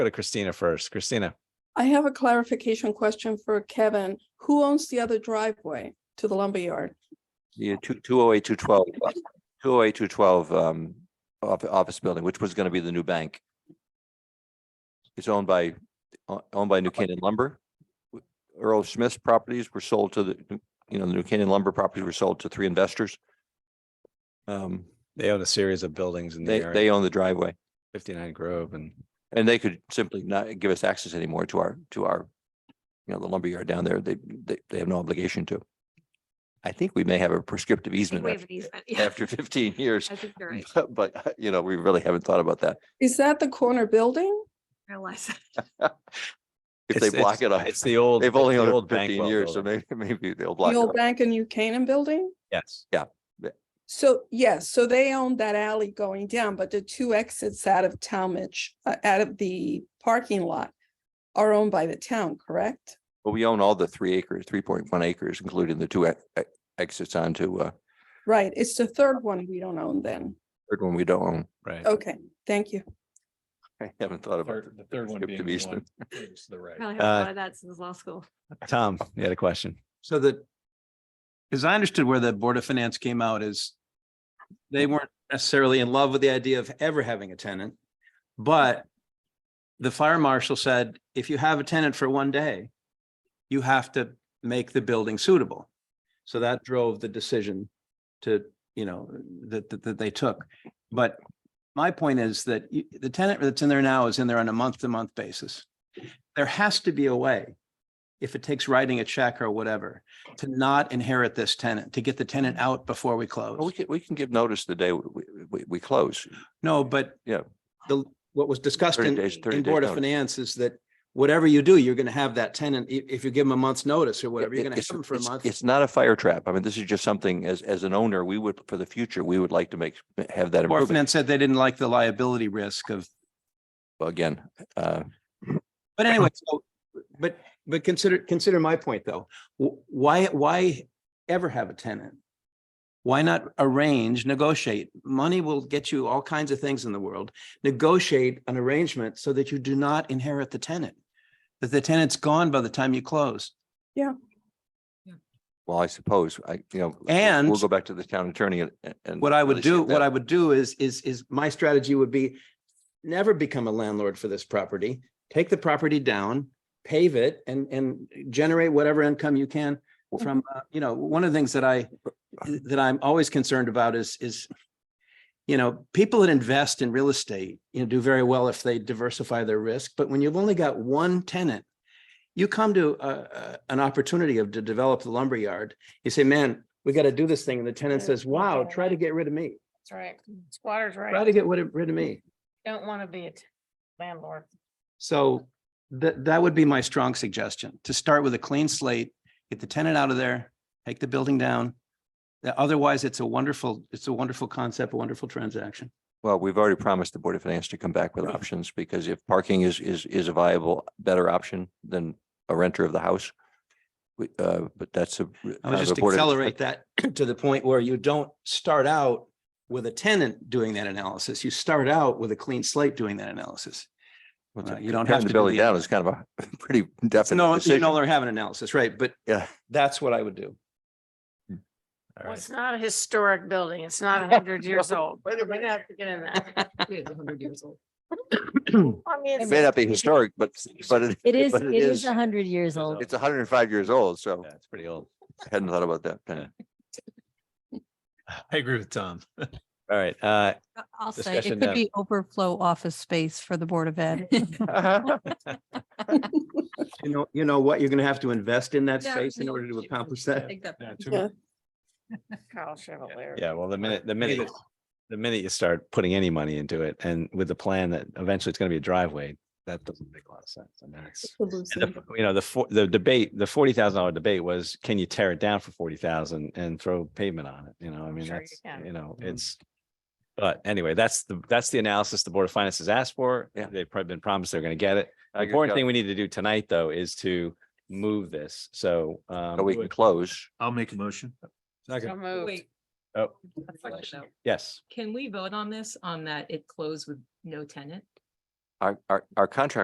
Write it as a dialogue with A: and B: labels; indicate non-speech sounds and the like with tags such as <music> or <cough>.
A: Go to Christina first. Christina,
B: I have a clarification question for Kevin. Who owns the other driveway to the lumberyard?
C: Yeah, two, two oh eight, two twelve, two oh eight, two twelve, um, office, office building, which was gonna be the new bank. It's owned by, o- owned by New Canaan Lumber. Earl Smith's properties were sold to the, you know, the New Canaan Lumber properties were sold to three investors. Um,
A: they own a series of buildings in the
C: they, they
A: area,
C: own the driveway
A: fifty-nine Grove and
C: and they could simply not give us access anymore to our, to our, you know, the lumberyard down there. They, they, they have no obligation to. I think we may have a prescriptive
D: I think
C: easement
D: we have
C: after-
D: an easement. Yeah,
C: after fifteen
D: <laughs>
C: years.
D: I think you're right.
C: <laughs> But, but, uh, you know, we really haven't thought about that.
B: Is that the corner building?
D: I Realize. that.
C: If they
A: It's-
C: block it
A: it's-
C: off,
A: It's the old.
C: they've
A: it's
C: only
A: the
C: owned it
A: old
C: fifteen
A: Bankwell
C: years, so
A: building.
C: maybe, <laughs> maybe they'll
B: The
C: block it
B: old
C: off.
B: bank and New Canaan building?
A: Yes,
B: So, yes, so they own that alley going down, but the two exits out of Talmadge, uh, out of the parking lot are owned by the town, correct?
C: But we own all the three acres, three point one acres, including the two e- e- exits onto, uh,
B: Right, it's the third one we don't own then.
C: third one we don't own. <laughs>
A: right.
B: Okay, thank you.
C: I haven't thought about
E: Third- The third one
C: Skip
E: being
C: to
E: the one
C: Eastman.
E: to the
D: <laughs>
E: right.
D: Probably have
A: Uh,
D: a lot of that since law school.
A: Tom, you had a question.
F: So that, as I understood where the Board of Finance came out is they weren't necessarily in love with the idea of ever having a tenant, but the fire marshal said, if you have a tenant for one day, you have to make the building suitable. So that drove the decision to, you know, that, that, that they took. But my point is that you- the tenant that's in there now is in there on a month-to-month basis. There has to be a way, if it takes writing a check or whatever, to not inherit this tenant, to get the tenant out before we
C: Well, We
F: close.
C: can, we can give notice the day we, we- we, we close.
F: No, but
C: Yeah.
F: the, what was discussed
C: 30
F: in,
C: days- 30
F: in
C: days
F: Board of
C: notice.
F: Finance is that whatever you do, you're going to have that tenant, i- if you give them a month's notice or whatever, you're
C: It-
F: going to
C: it's-
F: have them for a
C: it's-
F: month.
C: It's not a fire trap. I mean, this is just something as, as an owner, we would, for the future, we would like to make, have that
F: Board of
C: improvement.
F: Finance said they didn't like the liability risk of
C: Again, uh,
F: But anyway, so, but, but consider, consider my point though. Wh- Why, why ever have a tenant? Why not arrange, negotiate? Money will get you all kinds of things in the world. Negotiate an arrangement so that you do not inherit the tenant. That the tenant's gone by the time you close.
C: well, I suppose, I, you know. we'll-
F: And-
C: We'll go back to the town attorney and- and.
F: What I would
C: really see if
F: do,
C: that-
F: what I would do is, is, is my strategy would be never become a landlord for this property. Take the property down, pave it and, and generate whatever income you can from, uh, you know, one of the things that I, that I'm always concerned about is, is, you know, people that invest in real estate, you know, do very well if they diversify their risk, but when you've only got one tenant, you come to a, a- an opportunity of to develop the lumberyard. You say, man, we got to do this thing. And the tenant
G: Yeah.
F: says, wow, try to get rid of me.
G: That's right. Squatters
F: Try to
G: right.
F: get rid of, rid of me.
G: Don't want to be a t- landlord.
F: So that, that would be my strong suggestion, to start with a clean slate, get the tenant out of there, take the building down. Uh, Otherwise, it's a wonderful, it's a wonderful concept, a wonderful transaction.
C: Well, we've already promised the Board of Finance to come back with options because if parking is, is, is a viable, better option than a renter of the house. We, uh, but that's a.
F: I would
C: uh, the
F: just
C: Board of-
F: accelerate that <clears throat> to the point where you don't start out with a tenant doing that analysis. You start out with a clean slate doing that analysis.
C: Well,
F: Uh,
C: to-
F: you don't
C: tearing
F: have
C: the
F: to do
C: Building
F: the-
C: down is kind of a <laughs> pretty definite
F: No, you know,
C: decision.
F: they're having analysis, right? But
C: Yeah.
F: that's what I would do.
A: All
G: Well,
A: right.
G: it's not a historic building. It's <laughs> not a hundred years old. We're gonna have to get in that. <laughs> I mean,
C: It
G: it's-
C: may not be historic, but, but it.
H: It is,
C: but
H: it is a hundred years
A: It's
H: old.
C: It's hundred and five years old, so
A: Yeah, it's pretty old.
C: I hadn't thought about that. Penny.
E: I agree with Tom.
A: All right, uh,
I: Uh, I'll say
A: Discussion
I: it
A: now.
I: could be overflow office space for the Board of Ed.
F: You know, you know what? You're going to have to invest in that
I: Yeah,
F: space in
I: no,
F: order to
I: she-
F: accomplish that.
E: Yeah, too
B: Yeah.
E: much.
G: Kyle Chevalier.
A: yeah, well, the minute, the minute, the minute you start putting any money into it and with the plan that eventually it's gonna be a driveway, that doesn't make a lot of sense. I mean, it's. And the, you know, the, for- the debate, the forty thousand dollar debate was, can you tear it down for forty thousand and throw pavement on it? You know, I mean,
G: Sure you
A: that's,
G: can.
A: you know,
C: Mm-hmm.
F: Mhm.
A: it's. But anyway, that's the, that's the analysis the Board of Finance has asked for.
C: Yeah.
A: They've probably been promised they're going to get it.
C: I
A: The
C: agree,
A: important
C: Chuck.
A: thing we need to do tonight, though, is to move this. So, um,
C: So we can close.
E: I'll make a motion.
G: So moved.
J: Wait.
A: Oh.
J: I have a question, though.
A: yes.
J: Can we vote on this, on that it closed with no tenant?
C: Our, our, our contract